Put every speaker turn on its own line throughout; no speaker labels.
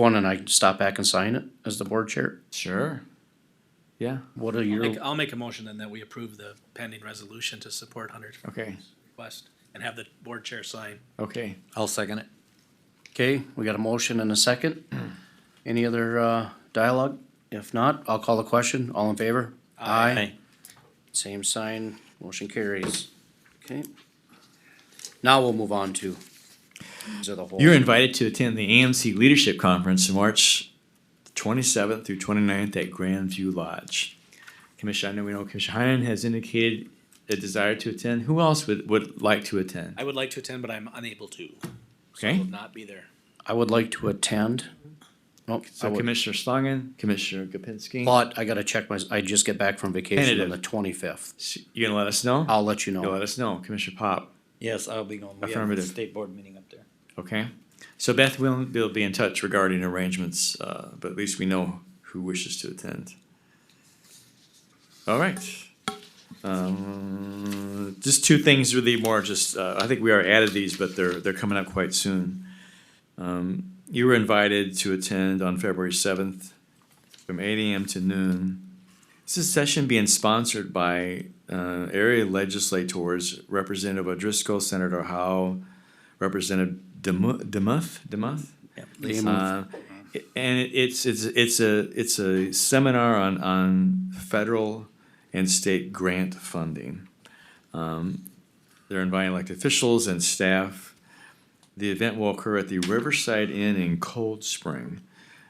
one and I stop back and sign it as the board chair?
Sure. Yeah,
What are
I'll
your,
make, I'll make a motion then that we approve the pending resolution to support Hunter's
okay,
request and have the board chair sign.
okay. I'll second it.
okay, we got a motion and a second. Any other, uh, dialogue? If not, I'll call the question. All in favor? Aye. Same sign, motion carries. Okay. Now we'll move on to. these are the whole-
You're invited to attend the AMC Leadership Conference in March 27th through 29th at Grandview Lodge. Commissioner, I know we know Commissioner Heinen has indicated a desire to attend. Who else would, would like to attend?
I would like to attend, but I'm unable to.
Okay,
Will not be there.
I would like to attend. Nope, I
so
would-
Commissioner Schlangen, Commissioner Gopinski,
But I gotta check my, I just get back from vacation on
Tentative.
the twenty-fifth.
S- you gonna let us know?
I'll let you
You'll
know.
Let us know, Commissioner Pop,
Yes, I'll be going. We have a
Affirmative.
state board meeting up there.
okay? So Beth will, will be in touch regarding arrangements, uh, but at least we know who wishes to attend. All right. Um, just two things really more just, uh, I think we are added these, but they're, they're coming up quite soon. Um, you were invited to attend on February seventh from eight AM to noon. This is a session being sponsored by, uh, area legislators, Representative O'Driscoll, Senator Howe, Representative Demuth, Demuth, Demuth?
They move.
Uh, and it- it's it's it's a it's a seminar on on federal and state grant funding. Um, they're inviting elected officials and staff. The event will occur at the Riverside Inn in Cold Spring.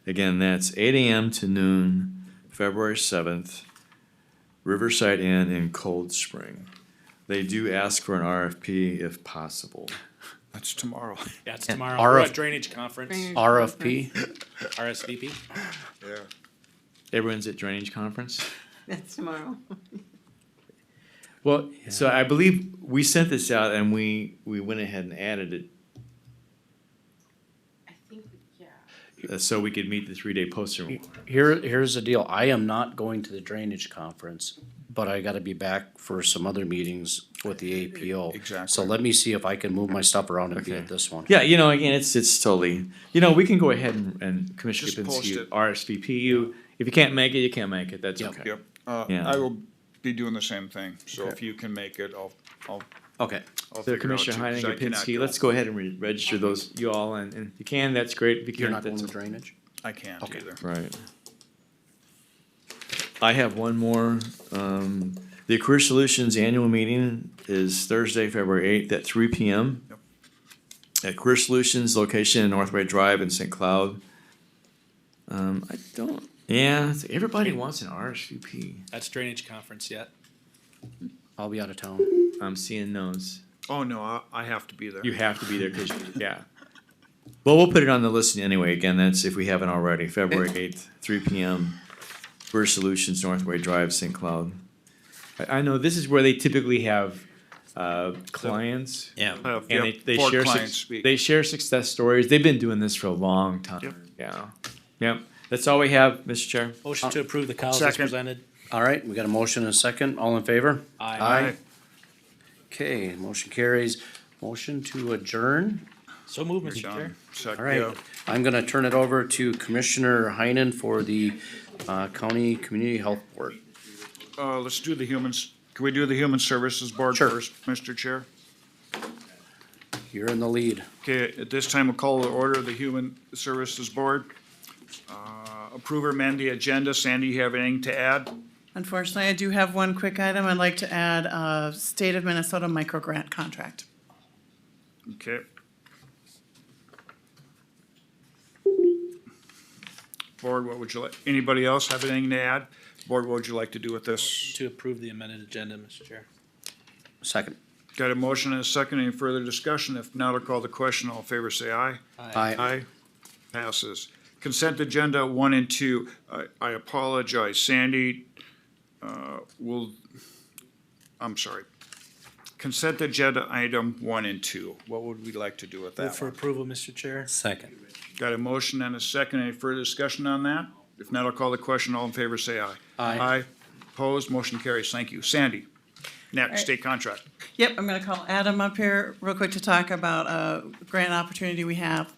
Again, that's eight a.m. to noon, February seventh. Riverside Inn in Cold Spring. They do ask for an RFP if possible.
That's tomorrow.
Yeah, it's tomorrow.
RF
We're at drainage conference,
Drainage.
RFP,
RSVP.
Yeah.
Everyone's at Drainage Conference.
That's tomorrow.
Well, so I believe we sent this out and we, we went ahead and added it,
I think, yeah.
uh, so we could meet the three-day posting requirement.
here, here's the deal. I am not going to the drainage conference, but I gotta be back for some other meetings with the APO. So
Exactly.
let me see if I can move my stuff around and be
Okay.
at this one.
Yeah, you know, again, it's, it's totally, you know, we can go ahead and, and Commissioner
Just post
Kapinski,
it.
RSVP you, if you can't make it, you can't make it, that's
Yep.
okay.
Yep, uh,
Yeah.
I will be doing the same thing, so if you can make it, I'll, I'll,
Okay,
So
I'll figure it out.
Commissioner
too, 'cause
Heinen,
I cannot
Kapinski,
go.
let's go ahead and re- register those, you all, and, and if you can, that's great, if you
you're not
can't,
going
that's.
to drainage?
I can't
Okay.
either.
Right. I have one more. Um, the Career Solutions Annual Meeting is Thursday, February eighth at three P M.
Yep.
At Career Solutions location in Northway Drive in St. Cloud. Um, I don't, yeah, it's- everybody wants an RSVP.
That's drainage conference yet.
I'll be out of town.
I'm seeing those.
Oh, no, I, I have to be there.
You have to be there, cause, yeah. Well, we'll put it on the list anyway. Again, that's if we haven't already, February eighth, three P M. Career Solutions, Northway Drive, St. Cloud. I, I know this is where they typically have, uh, clients.
Yeah.
I have-
And they,
yep,
they
four
share, suc-
clients speak.
they share success stories. They've been doing this for a long time.
Yep.
Yeah. Yep. That's all we have, Mr. Chair.
Motion to approve the cows as
Second.
presented.
All right, we got a motion and a second. All in favor?
Aye.
Aye.
Okay, motion carries. Motion to adjourn.
So move, Mr. Chair.
John, sec-
All right,
yeah.
I'm gonna turn it over to Commissioner Heinen for the, uh, County Community Health Board.
Uh, let's do the humans, can we do the Human Services Board
Sure.
first, Mr. Chair?
You're in the lead.
Okay, at this time, we'll call to order the Human Services Board. Uh, Approve or amend the agenda. Sandy, you have anything to add?
Unfortunately, I do have one quick item. I'd like to add a state of Minnesota micro grant contract.
Okay. Board, what would you like, anybody else have anything to add? Board, what would you like to do with this?
To approve the amended agenda, Mr. Chair.
Second.
Got a motion and a second, any further discussion? If not, I'll call the question, all in favor, say aye.
Aye.
Passes. Consent agenda one and two, I, I apologize, Sandy, uh, will, I'm sorry. Consent agenda item one and two, what would we like to do with that
Move
one?
for approval, Mr. Chair.
Second.
Got a motion and a second. Any further discussion on that? If not, I'll call the question. All in favor, say aye.
Aye.
Aye. Opposed, motion carries. Thank you. Sandy,
right.
next, state contract.
Yep, I'm gonna call Adam up here real quick to talk about a grant opportunity we have